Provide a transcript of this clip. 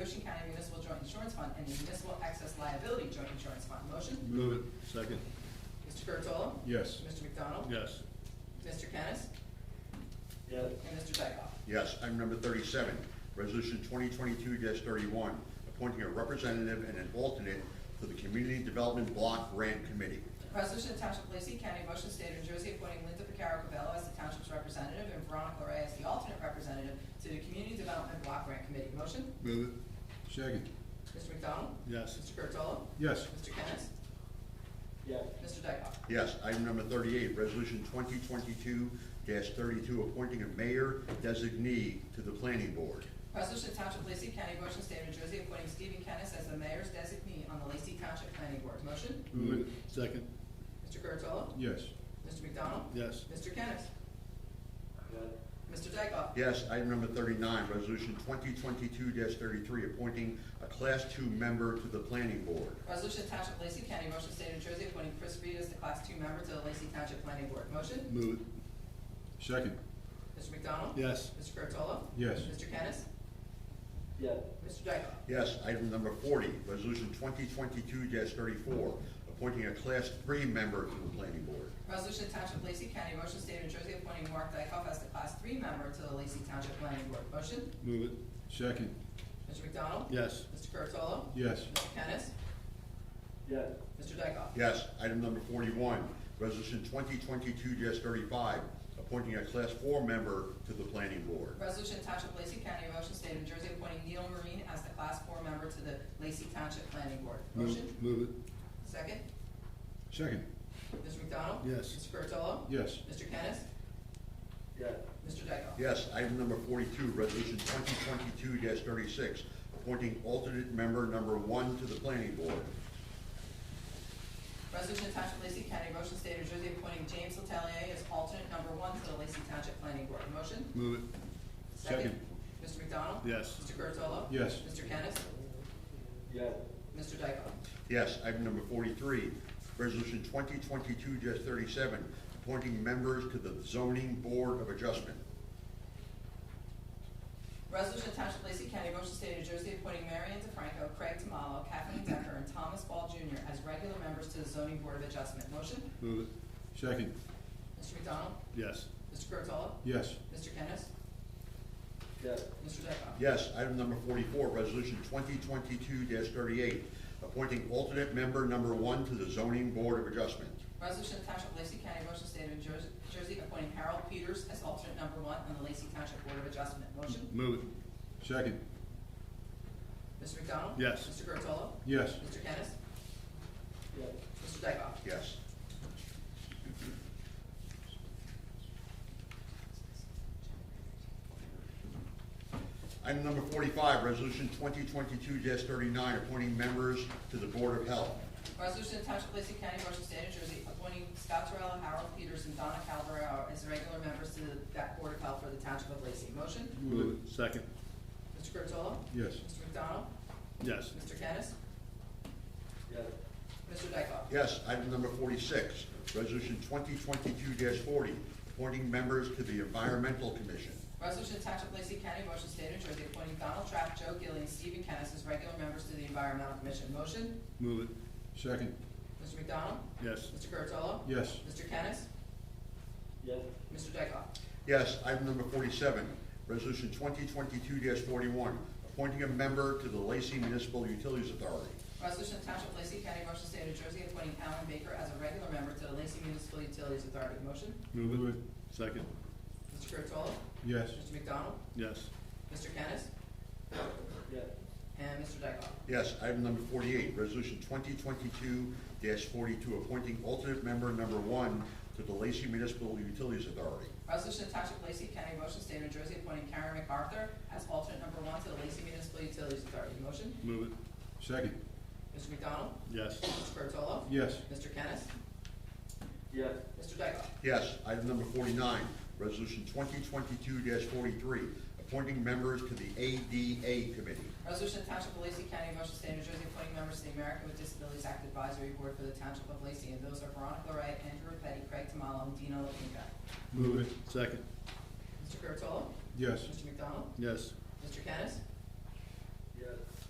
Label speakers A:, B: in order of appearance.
A: Ocean County Municipal Joint Insurance Fund and the Municipal Excess Liability Joint Insurance Fund. Motion?
B: Move it. Second.
A: Mr. Curatolo?
B: Yes.
A: Mr. McDonald?
B: Yes.
A: Mr. Kennis?
C: yes,
A: And Mr. Dykoff?
D: Yes, item number thirty-seven, resolution twenty twenty-two thirty-one, appointing a representative and an alternate to the Community Development Block Grant Committee.
A: Resolution of Township of Lacey County, Motion State of New Jersey, appointing Linda Picaro Cabello as the township's representative and Veronica Larray as the alternate representative to the Community Development Block Grant Committee. Motion?
B: Move it. Second.
A: Mr. McDonald?
B: Yes.
A: Mr. Curatolo?
B: Yes.
A: Mr. Kennis?
C: yes,
A: Mr. Dykoff?
D: Yes, item number thirty-eight, resolution twenty twenty-two thirty-two, appointing a mayor designee to the planning board.
A: Resolution of Township of Lacey County, Motion State of New Jersey, appointing Stephen Kennis as the mayor's designee on the Lacey Township Planning Board. Motion?
B: Move it. Second.
A: Mr. Curatolo?
B: Yes.
A: Mr. McDonald?
B: Yes.
A: Mr. Kennis?
C: yes,
A: Mr. Dykoff?
D: Yes, item number thirty-nine, resolution twenty twenty-two thirty-three, appointing a class two member to the planning board.
A: Resolution of Township of Lacey County, Motion State of New Jersey, appointing Chris Reed as the Class Two member to the Lacey Township Planning Board. Motion?
B: Move it. Second.
A: Mr. McDonald?
B: Yes.
A: Mr. Curatolo?
B: Yes.
A: Mr. Kennis?
C: yes,
A: Mr. Dykoff?
D: Yes, item number forty, resolution twenty twenty-two thirty-four, appointing a class three member to the planning board.
A: Resolution of Township of Lacey County, Motion State of New Jersey, appointing Mark Dykoff as the Class Three member to the Lacey Township Planning Board. Motion?
B: Move it. Second.
A: Mr. McDonald?
B: Yes.
A: Mr. Curatolo?
B: Yes.
A: Mr. Kennis?
C: yes,
A: Mr. Dykoff?
D: Yes, item number forty-one, resolution twenty twenty-two thirty-five, appointing a class four member to the planning board.
A: Resolution of Township of Lacey County, Motion State of New Jersey, appointing Neil Marine as the Class Four member to the Lacey Township Planning Board.
B: Move-
A: Motion?
B: Move it.
A: Second?
B: Second.
A: Mr. McDonald?
B: Yes.
A: Mr. Curatolo?
B: Yes.
A: Mr. Kennis?
C: yes,
A: Mr. Dykoff?
D: Yes, item number forty-two, resolution twenty twenty-two thirty-six, appointing alternate member number one to the planning board.
A: Resolution of Township of Lacey County, Motion State of New Jersey, appointing James Letelier as alternate number one to the Lacey Township Planning Board. Motion?
B: Move it. Second.
A: Mr. McDonald?
B: Yes.
A: Mr. Curatolo?
B: Yes.
A: Mr. Kennis?
C: yes,
A: Mr. Dykoff?
D: Yes, item number forty-three, resolution twenty twenty-two thirty-seven, appointing members to the zoning board of adjustment.
A: Resolution of Township of Lacey County, Motion State of New Jersey, appointing Mary Ann DeFranco, Craig Tamalo, Kathleen Decker, and Thomas Ball Jr. as regular members to the Zoning Board of Adjustment. Motion?
B: Move it. Second.
A: Mr. McDonald?
B: Yes.
A: Mr. Curatolo?
B: Yes.
A: Mr. Kennis?
C: yes,
A: Mr. Dykoff?
D: Yes, item number forty-four, resolution twenty twenty-two thirty-eight, appointing alternate member number one to the zoning board of adjustment.
A: Resolution of Township of Lacey County, Motion State of New Jer- Jersey, appointing Harold Peters as alternate number one on the Lacey Township Board of Adjustment. Motion?
B: Move it. Second.
A: Mr. McDonald?
B: Yes.
A: Mr. Curatolo?
B: Yes.
A: Mr. Kennis?
C: yes,
A: Mr. Dykoff?
D: Yes. Item number forty-five, resolution twenty twenty-two thirty-nine, appointing members to the board of health.
A: Resolution of Township of Lacey County, Motion State of New Jersey, appointing Scott Terrell, Harold Peters, and Donna Calvario as regular members to that Board of Health for the Township of Lacey. Motion?
B: Move it. Second.
A: Mr. Curatolo?
B: Yes.
A: Mr. McDonald?
B: Yes.
A: Mr. Kennis?
C: yes,
A: Mr. Dykoff?
D: Yes, item number forty-six, resolution twenty twenty-two forty, appointing members to the environmental commission.
A: Resolution of Township of Lacey County, Motion State of New Jersey, appointing Donald Trapp, Joe Gillian, and Stephen Kennis as regular members to the Environmental Commission. Motion?
B: Move it. Second.
A: Mr. McDonald?
B: Yes.
A: Mr. Curatolo?
B: Yes.
A: Mr. Kennis?
C: yes,
A: Mr. Dykoff?
D: Yes, item number forty-seven, resolution twenty twenty-two forty-one, appointing a member to the Lacey Municipal Utilities Authority.
A: Resolution of Township of Lacey County, Motion State of New Jersey, appointing Alan Baker as a regular member to the Lacey Municipal Utilities Authority. Motion?
B: Move it. Second.
A: Mr. Curatolo?
B: Yes.
A: Mr. McDonald?
B: Yes.
A: Mr. Kennis?
C: yes,
A: And Mr. Dykoff?
D: Yes, item number forty-eight, resolution twenty twenty-two forty-two, appointing alternate member number one to the Lacey Municipal Utilities Authority.
A: Resolution of Township of Lacey County, Motion State of New Jersey, appointing Karen MacArthur as alternate number one to the Lacey Municipal Utilities Authority. Motion?
B: Move it. Second.
A: Mr. McDonald?
B: Yes.
A: Mr. Curatolo?
B: Yes.
A: Mr. Kennis?
C: yes,
A: Mr. Dykoff?
D: Yes, item number forty-nine, resolution twenty twenty-two forty-three, appointing members to the ADA Committee.
A: Resolution of Township of Lacey County, Motion State of New Jersey, appointing members to the American with Disabilities Act Advisory Board for the Township of Lacey, and those are Veronica Ray, Andrew Petty, Craig Tamalo, and Dino Lapinka.
B: Move it. Second.
A: Mr. Curatolo?
B: Yes.
A: Mr. McDonald?
B: Yes.
A: Mr. Kennis?